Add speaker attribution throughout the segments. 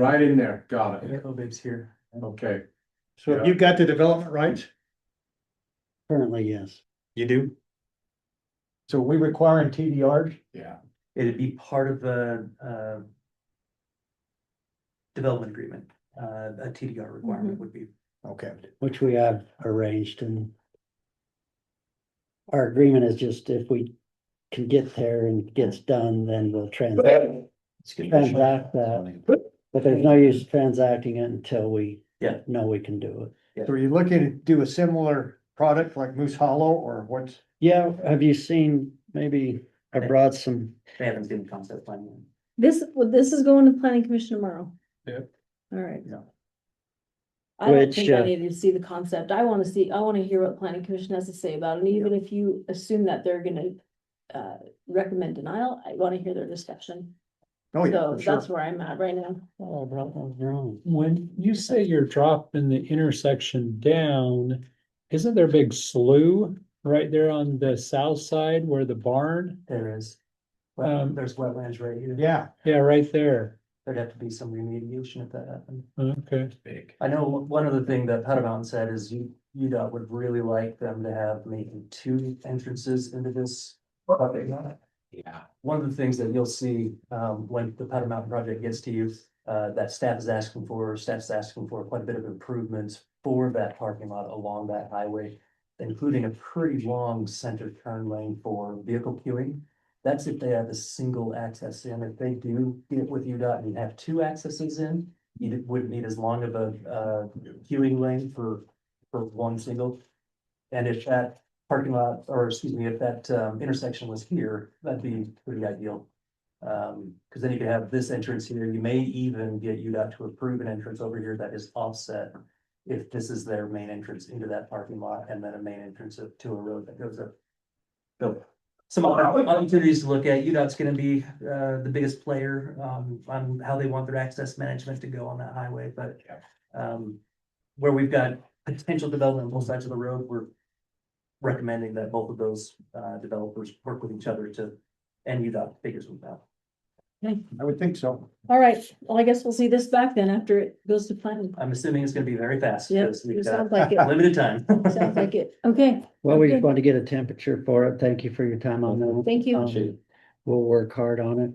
Speaker 1: Right in there, got it,
Speaker 2: Cobib's here.
Speaker 1: okay.
Speaker 3: So if you've got the development rights,
Speaker 4: Currently, yes.
Speaker 3: you do.
Speaker 4: So we requiring TDRs?
Speaker 1: Yeah,
Speaker 2: It'd be part of a, uh. Development agreement, uh, a TDR requirement
Speaker 5: Mm-hmm.
Speaker 2: would be.
Speaker 3: Okay.
Speaker 4: Which we have arranged and. Our agreement is just if we can get there and it gets done, then we'll transact, transact that. But there's no use transacting it until we.
Speaker 2: Yeah.
Speaker 4: Know we can do it.
Speaker 3: So are you looking to do a similar product like Moose Hollow or what's?
Speaker 4: Yeah, have you seen, maybe I brought some,
Speaker 2: They haven't seen the concept plan. yet.
Speaker 5: This, well, this is going to the planning commission tomorrow.
Speaker 1: Yep.
Speaker 5: All right.
Speaker 3: Yeah.
Speaker 5: I don't
Speaker 4: Which,
Speaker 5: think I
Speaker 4: uh,
Speaker 5: needed to see the concept. I wanna see, I wanna hear what the planning commission has to say about it, and even if you assume that they're gonna. Uh, recommend denial, I wanna hear their discussion,
Speaker 3: Oh, yeah,
Speaker 5: so
Speaker 3: for sure.
Speaker 5: that's where I'm at right now.
Speaker 4: oh, I brought those wrong.
Speaker 6: When you say you're dropping the intersection down, isn't there a big slough right there on the south side where the barn?
Speaker 2: There is. Well,
Speaker 6: Um,
Speaker 2: there's wetlands right here.
Speaker 3: Yeah,
Speaker 6: Yeah, right there.
Speaker 2: There'd have to be some remediation if that happened.
Speaker 6: Okay,
Speaker 1: big.
Speaker 2: I know one other thing that Powder Mountain said is you, UDOT would really like them to have maybe two entrances into this. project.
Speaker 1: Yeah.
Speaker 2: One of the things that you'll see, um, when the Powder Mountain project gets to you, uh, that staff is asking for, staff's asking for quite a bit of improvements for that parking lot along that highway, including a pretty long center turn lane for vehicle queuing. That's if they have a single access in. If they do get with UDOT and have two accesses in, you wouldn't need as long of a, uh, queuing lane for, for one single. And if that parking lot, or excuse me, if that um, intersection was here, that'd be pretty ideal. Um, because then you could have this entrance here, you may even get UDOT to approve an entrance over here that is offset. If this is their main entrance into that parking lot and then a main entrance up to a road that goes up. So some other opportunities to look at, UDOT's gonna be uh the biggest player um on how they want their access management to go on that highway, but. Um, where we've got potential development on both sides of the road, we're recommending that both of those uh developers work with each other to and UDOT figures them out.
Speaker 3: I would think so.
Speaker 5: All right, well, I guess we'll see this back then after it goes to planning.
Speaker 2: I'm assuming it's gonna be very fast
Speaker 5: Yep,
Speaker 2: because
Speaker 5: it
Speaker 2: we've got
Speaker 5: sounds like it,
Speaker 2: limited time.
Speaker 5: sounds like it, okay,
Speaker 4: Well, we just
Speaker 5: Okay.
Speaker 4: want to get a temperature for it. Thank you for your time on that.
Speaker 5: thank you.
Speaker 4: Um, We'll work hard on it.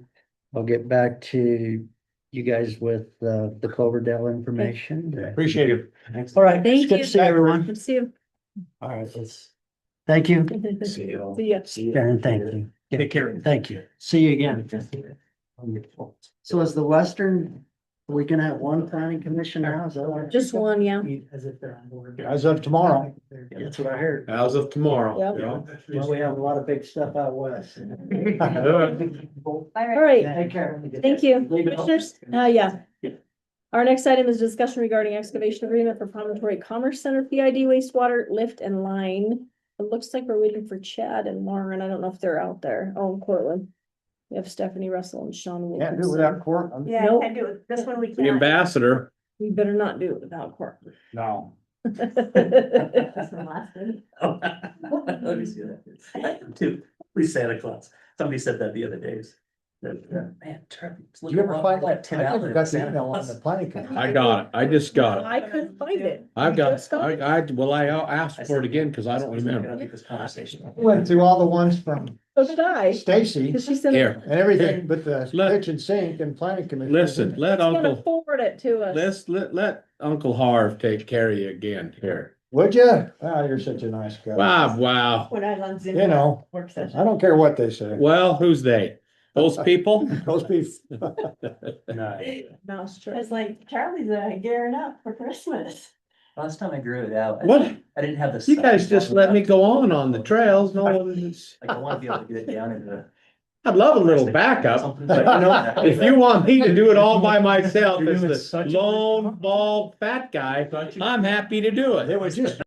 Speaker 4: I'll get back to you guys with uh, the Cloverdale information.
Speaker 3: Appreciate it.
Speaker 4: All right.
Speaker 5: Thank
Speaker 4: it's Good
Speaker 5: you.
Speaker 4: to see everyone.
Speaker 5: Let's see you.
Speaker 4: All right, let's, thank you,
Speaker 5: See ya.
Speaker 4: Karen, thank you.
Speaker 3: Take care.
Speaker 4: Thank you. See you again. So is the Western, we can have one planning commission now? Is that what-
Speaker 5: Just one, yeah.
Speaker 2: As if they're on board.
Speaker 3: As of tomorrow.
Speaker 4: That's what I heard.
Speaker 1: As of tomorrow.
Speaker 5: Yep.
Speaker 4: Well, we have a lot of big stuff out west.
Speaker 5: All right,
Speaker 4: Take care.
Speaker 5: Thank you.
Speaker 2: Leave it
Speaker 5: Commissioners, uh, yeah. Our next item is discussion regarding excavation agreement for Promontory Commerce Center PID wastewater lift and line. It looks like we're waiting for Chad and Lauren. I don't know if they're out there. Oh, and Cortland. We have Stephanie Russell and Sean
Speaker 3: Can't do it
Speaker 5: Wilkinson.
Speaker 3: without court. I'm-
Speaker 7: Yeah,
Speaker 5: Nope.
Speaker 7: I do it. This one we
Speaker 1: The
Speaker 7: can't.
Speaker 1: ambassador.
Speaker 5: We better not do it without Cortland.
Speaker 3: No.
Speaker 7: That's the last one.
Speaker 2: Oh. Let me see that. Dude, Please Santa Claus. Somebody said that the other days. That, uh, Man, Trevor.
Speaker 3: Do you ever find
Speaker 2: like
Speaker 3: that?
Speaker 2: ten
Speaker 3: I
Speaker 2: hours?
Speaker 3: never got the email on the planning. committee.
Speaker 1: I got it, I just got it.
Speaker 5: I couldn't find it.
Speaker 1: I've got, I, I, well, I asked for it again because I don't remember.
Speaker 2: This conversation.
Speaker 3: Went through all the ones from
Speaker 5: So did I.
Speaker 3: Stacy
Speaker 5: Cause she said.
Speaker 1: Here,
Speaker 3: and everything but the
Speaker 1: Let-
Speaker 3: kitchen sink and planning commission.
Speaker 1: listen, let
Speaker 5: She's gonna
Speaker 1: Uncle,
Speaker 5: forward it to us.
Speaker 1: let's, let, let Uncle Harv take care of you again here.
Speaker 3: Would you? Ah, you're such a nice guy.
Speaker 1: Wow, wow.
Speaker 7: When I was on Zoom.
Speaker 3: You know,
Speaker 7: Work session.
Speaker 3: I don't care what they say.
Speaker 1: Well, who's they? Those people?
Speaker 3: Those people.
Speaker 5: Mouse
Speaker 7: I
Speaker 5: trap.
Speaker 7: was like, Charlie's uh, gearing up for Christmas.
Speaker 2: Last time I grew it out. I-
Speaker 1: What?
Speaker 2: I didn't have this.
Speaker 1: You guys just let me go on on the trails. No, it's-
Speaker 2: Like, I wanna be able to get it down into. the-
Speaker 1: I'd love a little backup.
Speaker 2: Something like that.
Speaker 1: If you want me to do it all by myself
Speaker 6: You're
Speaker 1: as
Speaker 6: doing
Speaker 1: the
Speaker 6: such a-
Speaker 1: lone bald fat guy, I'm happy to do it.
Speaker 3: It was just